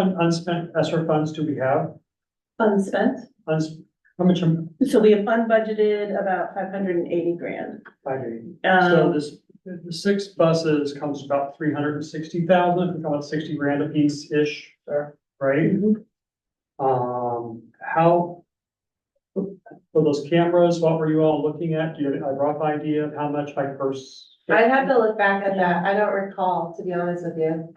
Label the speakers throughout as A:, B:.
A: un- unspent ESER funds do we have?
B: Unspent,
A: Uns- How much, am-
B: so we have unbudgeted about five hundred and eighty grand.
A: five eighty? So
B: Um,
A: this, the the six buses comes about three hundred and sixty thousand, we call it sixty grand a piece-ish, right?
B: Mhm.
C: Mm-hmm.
A: Um, how? For those cameras, what were you all looking at? Do you have a rough idea of how much I first?
C: I'd have to look back at that. I don't recall, to be honest with you.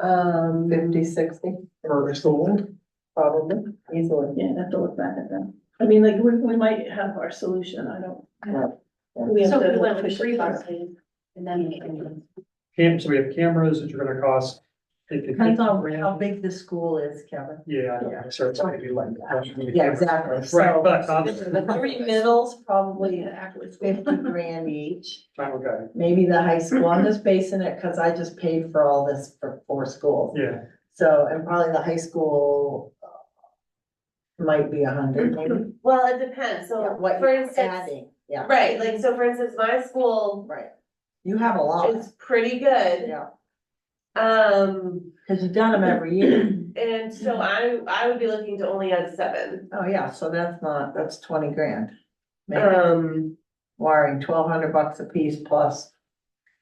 C: Um. Fifty, sixty,
A: Per school?
C: probably, easily.
B: Um, yeah, I'd have to look back at that. I mean, like, we, we might have our solution, I don't. We have
D: So
B: to
D: we went with
B: push it
D: three
B: through.
D: buses and then.
A: Cam, so we have cameras, which are gonna cost. Depends
C: big the school is, Kevin.
A: Yeah, I know, so it's maybe like.
C: Yeah, exactly.
A: Right,
C: So
A: but, um,
C: the three middles probably fifty grand each.
A: okay,
C: Maybe the high school. I'm just basing it because I just paid for all this for four schools.
A: yeah,
C: So, and probably the high school uh, might be a hundred maybe.
E: Well, it depends, so
C: Yeah, What
E: for
C: you're
E: instance,
C: adding, yeah,
E: right, like, so for instance, my school
C: right. You have a lot,
E: is pretty good.
C: yeah,
E: Um,
C: because you've done them every year.
E: and so I,
C: Mm-hmm.
E: I would be looking to only add seven.
C: Oh, yeah, so that's not, that's twenty grand. Maybe
E: Um,
C: wiring twelve hundred bucks a piece plus,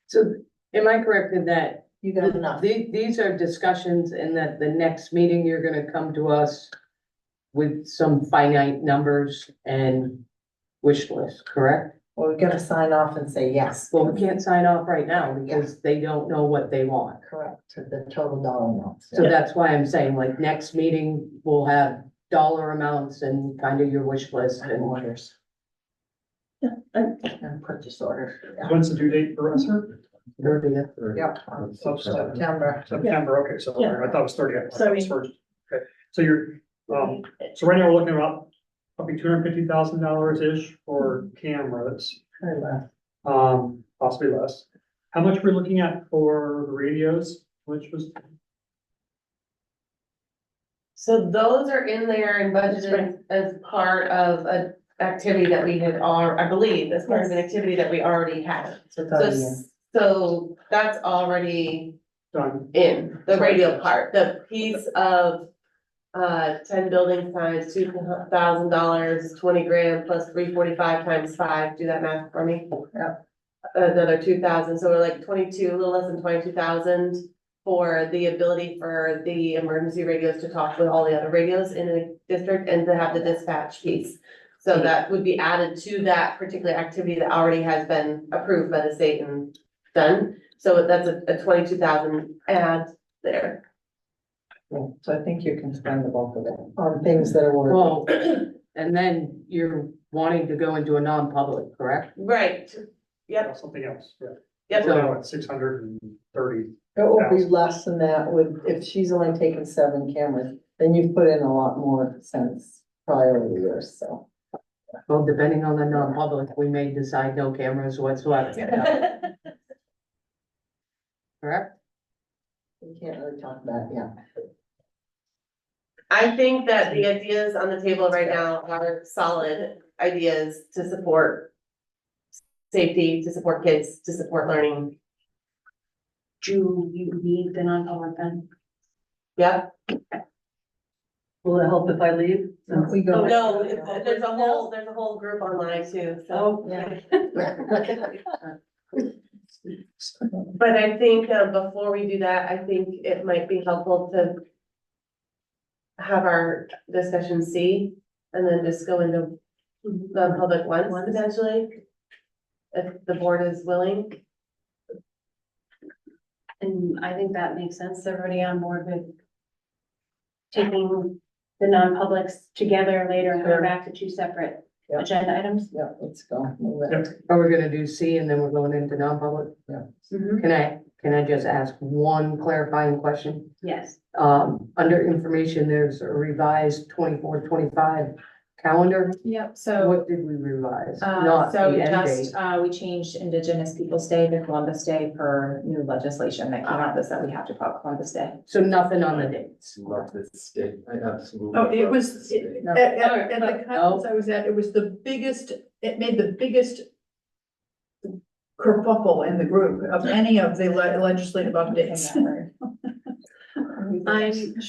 F: So am I correct in that
C: you got enough.
F: the- these are discussions and that the next meeting, you're gonna come to us with some finite numbers and wish list, correct?
C: Well, we gotta sign off and say yes,
F: Well, we can't sign off right now because they don't know what they want.
C: correct, to the total dollar amount.
F: So that's why I'm saying like next meeting, we'll have dollar amounts and kind of your wish list
C: And
F: and
C: orders.
B: Yeah, and-
C: And purchase orders, yeah,
A: when's the due date for us,
E: Mm-hmm.
A: sir?
F: thirtieth.
C: Yep, on September.
A: September, okay, so I thought it was thirty, I thought it was first. Okay, so you're, um, so right now we're looking about probably two hundred fifty thousand dollars-ish for cameras,
C: Very well.
A: um, possibly less. How much we're looking at for the radios, which was,
E: so those are in there and budgeted as part of a activity that we had, al- I believe, as part of an activity that we already had.
C: So it's
E: So,
C: on you.
E: s- so that's already
A: done,
E: in, the radio part, the piece of uh, ten building signs, two thousand dollars, twenty grand plus three forty-five times five, do that math for me.
C: Yeah.
E: Another two thousand, so we're like twenty-two, a little less than twenty-two thousand for the ability for the emergency radios to talk with all the other radios in the district and to have the dispatch piece. So that would be added to that particular activity that already has been approved by the state and done. So that's a, a twenty-two thousand add there.
C: Yeah, So I think you can spend the bulk of it on things that are worth.
F: Well, and then you're wanting to go into a non-public, correct?
E: Right, Yep.
A: something else, yeah.
E: Yep.
A: We're now at six hundred and thirty,
C: It will be less than that with, if she's only taken seven cameras, then you've put in a lot more since prior to the years, so.
F: Well, depending on the non-public, we may decide no cameras whatsoever, correct?
C: We can't really talk about, it, yeah.
E: I think that the ideas on the table right now are solid ideas to support safety, to support kids, to support learning.
D: Do you need the non-public then?
E: Yeah,
D: Will it help if I leave?
C: If we go.
E: Oh, no, it- there's a whole, there's a whole group online too,
F: Oh.
E: so.
C: Yeah.
E: But I think, uh, before we do that, I think it might be helpful to have our discussion C and then just go into the public ones potentially. If the board is willing.
D: And I think that makes sense. They're already on board with taking the non-publics together later and
C: Sure.
D: going back to two separate
C: Yeah.
D: agenda items.
C: Yeah, let's go. move it.
A: Yep.
F: Are we gonna do C and then we're going into non-public?
C: Mm-hmm.
F: Can I, can I just ask one clarifying question?
D: Yes.
F: Um, under information, there's a revised 24-25 calendar.
G: Yep, so,
F: What did we revise?
G: uh,
F: Not the
G: so
F: end
G: just,
F: date.
G: uh, we changed Indigenous Peoples' Day to Columbus Day per new legislation that came out, that said we have to call it Columbus Day.
F: So nothing on the dates.
H: Love this state, I absolutely.
I: Oh, it
H: love
I: was-
H: this state.
C: No.
I: At, at, at the conference I was at, it was the biggest, it made the biggest kerfuffle in the group of any of the le- legislative updates.
D: I'm